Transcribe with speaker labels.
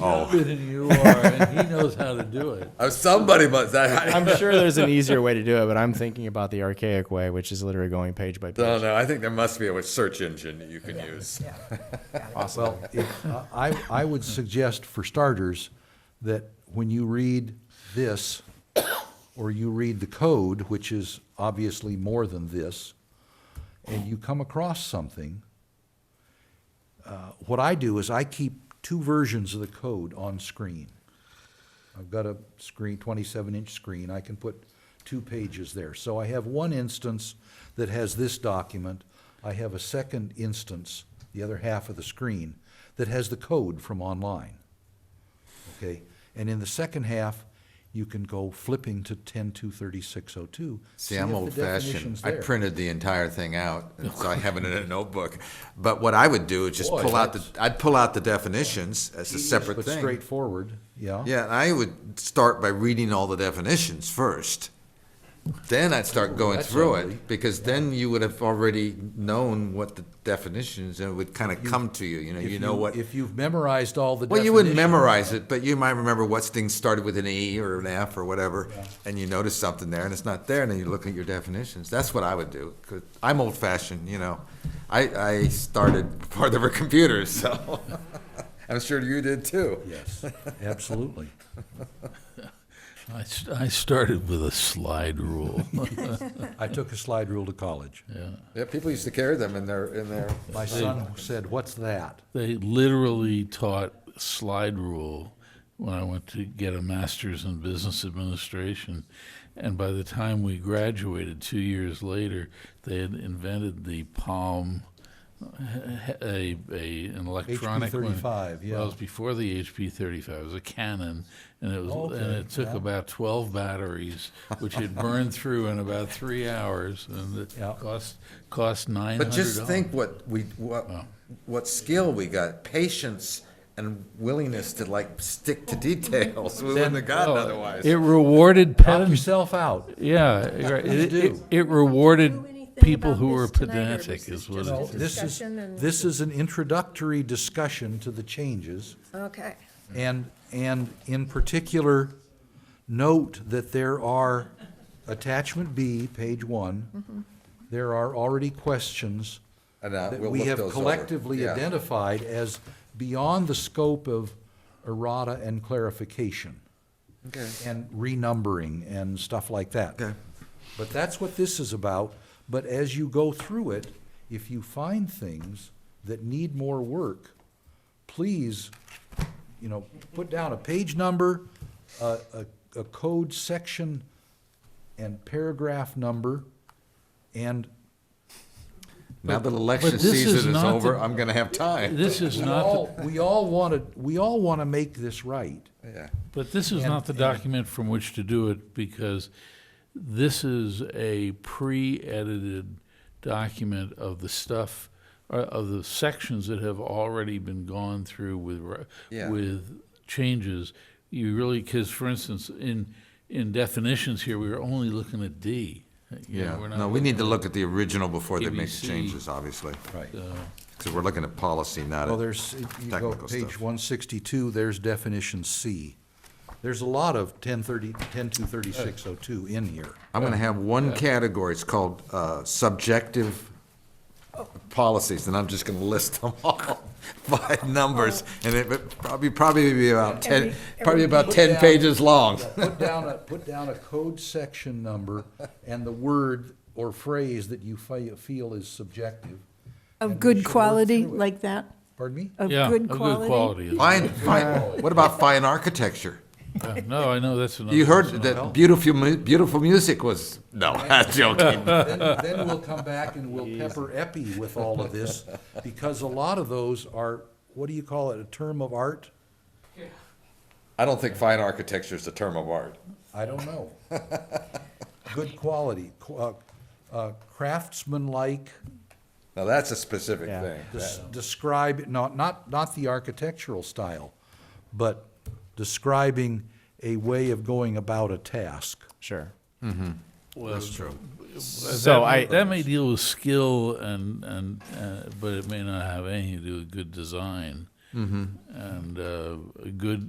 Speaker 1: Oh.
Speaker 2: Younger than you are, and he knows how to do it.
Speaker 3: Oh, somebody must. I, I
Speaker 4: I'm sure there's an easier way to do it, but I'm thinking about the archaic way, which is literally going page by
Speaker 3: don't
Speaker 4: page.
Speaker 3: know. I think there must be a search engine that you can use.
Speaker 2: Well, if- I, I would suggest for starters that when you read this, or you read the code, which is obviously more than this, and you come across something, uh, what I do is I keep two versions of the code on screen. I've got a screen, twenty-seven inch screen, I can put two pages there. So I have one instance that has this document, I have a second instance, the other half of the screen, that has the code from online. Okay, and in the second half, you can go flipping to ten two thirty-six oh two.
Speaker 3: See, I'm old fashioned. I printed the entire thing out, and so I have it in a notebook. But what I would do is just
Speaker 2: Boy,
Speaker 3: pull out the, I'd pull out the definitions as a separate
Speaker 2: But
Speaker 3: thing.
Speaker 2: straightforward, yeah.
Speaker 3: Yeah, and I would start by reading all the definitions first. Then I'd start going
Speaker 2: that's
Speaker 3: through
Speaker 2: ugly.
Speaker 3: it, because then you would have already known what the definitions, and it would kind of come to you, you know,
Speaker 2: If
Speaker 3: you know what.
Speaker 2: If you've memorized all the
Speaker 3: Well, you wouldn't
Speaker 2: definitions-
Speaker 3: memorize it, but you might remember what things started with an E or an F or whatever, and you notice something there, and it's not there, and then you look at your definitions. That's what I would do, 'cause I'm old-fashioned, you know. I, I started before there were computers, so I'm sure you did too.
Speaker 2: Yes, absolutely.
Speaker 1: I, s- I started with a slide rule.
Speaker 2: I took a slide rule to college.
Speaker 3: Yeah, people used to carry them in their, in their,
Speaker 2: My son said, what's that?
Speaker 1: they literally taught slide rule when I went to get a master's in business administration. And by the time we graduated two years later, they had invented the Palm, uh, a, a an electronic one.
Speaker 2: HP-35, yeah.
Speaker 1: Well, it was before the HP 35. It was a Canon, and it was and
Speaker 2: Okay,
Speaker 1: it took
Speaker 2: yeah.
Speaker 1: about 12 batteries, which it burned through in about three hours, and it
Speaker 2: Yeah.
Speaker 1: cost cost nine hundred.
Speaker 3: but just think what we, what, what skill we got, patience and willingness to like stick to details. We wouldn't have gotten otherwise.
Speaker 1: Oh, It rewarded
Speaker 2: Knock
Speaker 1: pedant.
Speaker 2: yourself out.
Speaker 1: Yeah, right. it, it,
Speaker 2: do.
Speaker 1: it
Speaker 5: Do
Speaker 1: rewarded
Speaker 5: anything
Speaker 1: people
Speaker 5: about
Speaker 1: who
Speaker 5: this
Speaker 1: were
Speaker 5: tonight, or
Speaker 1: pedantic,
Speaker 5: this is
Speaker 1: is what
Speaker 5: just
Speaker 1: it
Speaker 2: No,
Speaker 1: is.
Speaker 2: this is,
Speaker 5: Discussion and-
Speaker 2: this is an introductory discussion to the changes.
Speaker 5: Okay,
Speaker 2: And, and in particular, note that there are, attachment B, page one, there are already questions
Speaker 3: And, uh,
Speaker 2: that
Speaker 3: we'll
Speaker 2: we
Speaker 3: look
Speaker 2: have
Speaker 3: those over.
Speaker 2: collectively
Speaker 3: Yeah.
Speaker 2: identified as beyond the scope of errata and clarification.
Speaker 3: Okay.
Speaker 2: And renumbering and stuff like that.
Speaker 3: Okay.
Speaker 2: But that's what this is about. But as you go through it, if you find things that need more work, please, you know, put down a page number, a, a, a code section and paragraph number, and
Speaker 3: Now that election
Speaker 1: but this is
Speaker 3: season is
Speaker 1: not
Speaker 3: over,
Speaker 1: the-
Speaker 3: I'm gonna have time.
Speaker 1: This is
Speaker 2: we
Speaker 1: not, the-
Speaker 2: all, we all wanna, we all wanna make this right.
Speaker 3: Yeah.
Speaker 1: but this is not the document from which to do it because this is a pre-edited document of the stuff, uh, of the sections that have already been gone through with, re-
Speaker 3: Yeah.
Speaker 1: with changes. You really, because for instance, in, in definitions here, we were only looking at D. You know,
Speaker 3: Yeah,
Speaker 1: we're not
Speaker 3: no, we
Speaker 1: looking
Speaker 3: need to look at the original before they make the
Speaker 1: ABC.
Speaker 3: changes, obviously.
Speaker 2: Right.
Speaker 1: uh,
Speaker 3: So we're looking at policy, not
Speaker 2: Well,
Speaker 3: at,
Speaker 2: there's, you go
Speaker 3: Technical
Speaker 2: page
Speaker 3: stuff.
Speaker 2: one sixty-two, there's definition C. There's a lot of ten thirty, ten two thirty-six oh two in here.
Speaker 3: I'm gonna have one category, it's called, uh, subjective policies, and I'm just gonna list them all by numbers, and it would probably, probably be about ten,
Speaker 5: Every-
Speaker 3: probably
Speaker 5: every-
Speaker 3: about ten pages long.
Speaker 2: Put down a, put down a code section number and the word or phrase that you fe- feel is subjective. and
Speaker 6: Of
Speaker 2: we
Speaker 6: good
Speaker 2: should work
Speaker 6: quality,
Speaker 2: through it.
Speaker 6: like that?
Speaker 2: Pardon me?
Speaker 6: Of
Speaker 1: Yeah,
Speaker 6: good quality?
Speaker 1: quality.
Speaker 3: Fine, fine, what about fine architecture?
Speaker 1: Yeah, No, I know, that's another.
Speaker 3: You
Speaker 1: that's
Speaker 3: heard
Speaker 1: another-
Speaker 3: that beautiful, mu- beautiful music was, no, I'm joking.
Speaker 2: Then, then we'll come back and we'll pepper epi with all of this, because a lot of those are, what do you call it, a term of art?
Speaker 3: I don't think fine architecture is a term of art.
Speaker 2: I don't know. Good quality, qu- uh, uh, craftsman-like,
Speaker 3: Now, that's a specific
Speaker 4: Yeah.
Speaker 3: thing.
Speaker 2: des- describe, not, not, not the architectural style, but describing a way of going about a task.
Speaker 4: Sure.
Speaker 3: That's true.
Speaker 1: that
Speaker 4: So
Speaker 1: may,
Speaker 4: I,
Speaker 1: that may deal with skill and and uh, but it may not have anything to do with good design.
Speaker 3: Mm-hmm.
Speaker 1: and uh, a good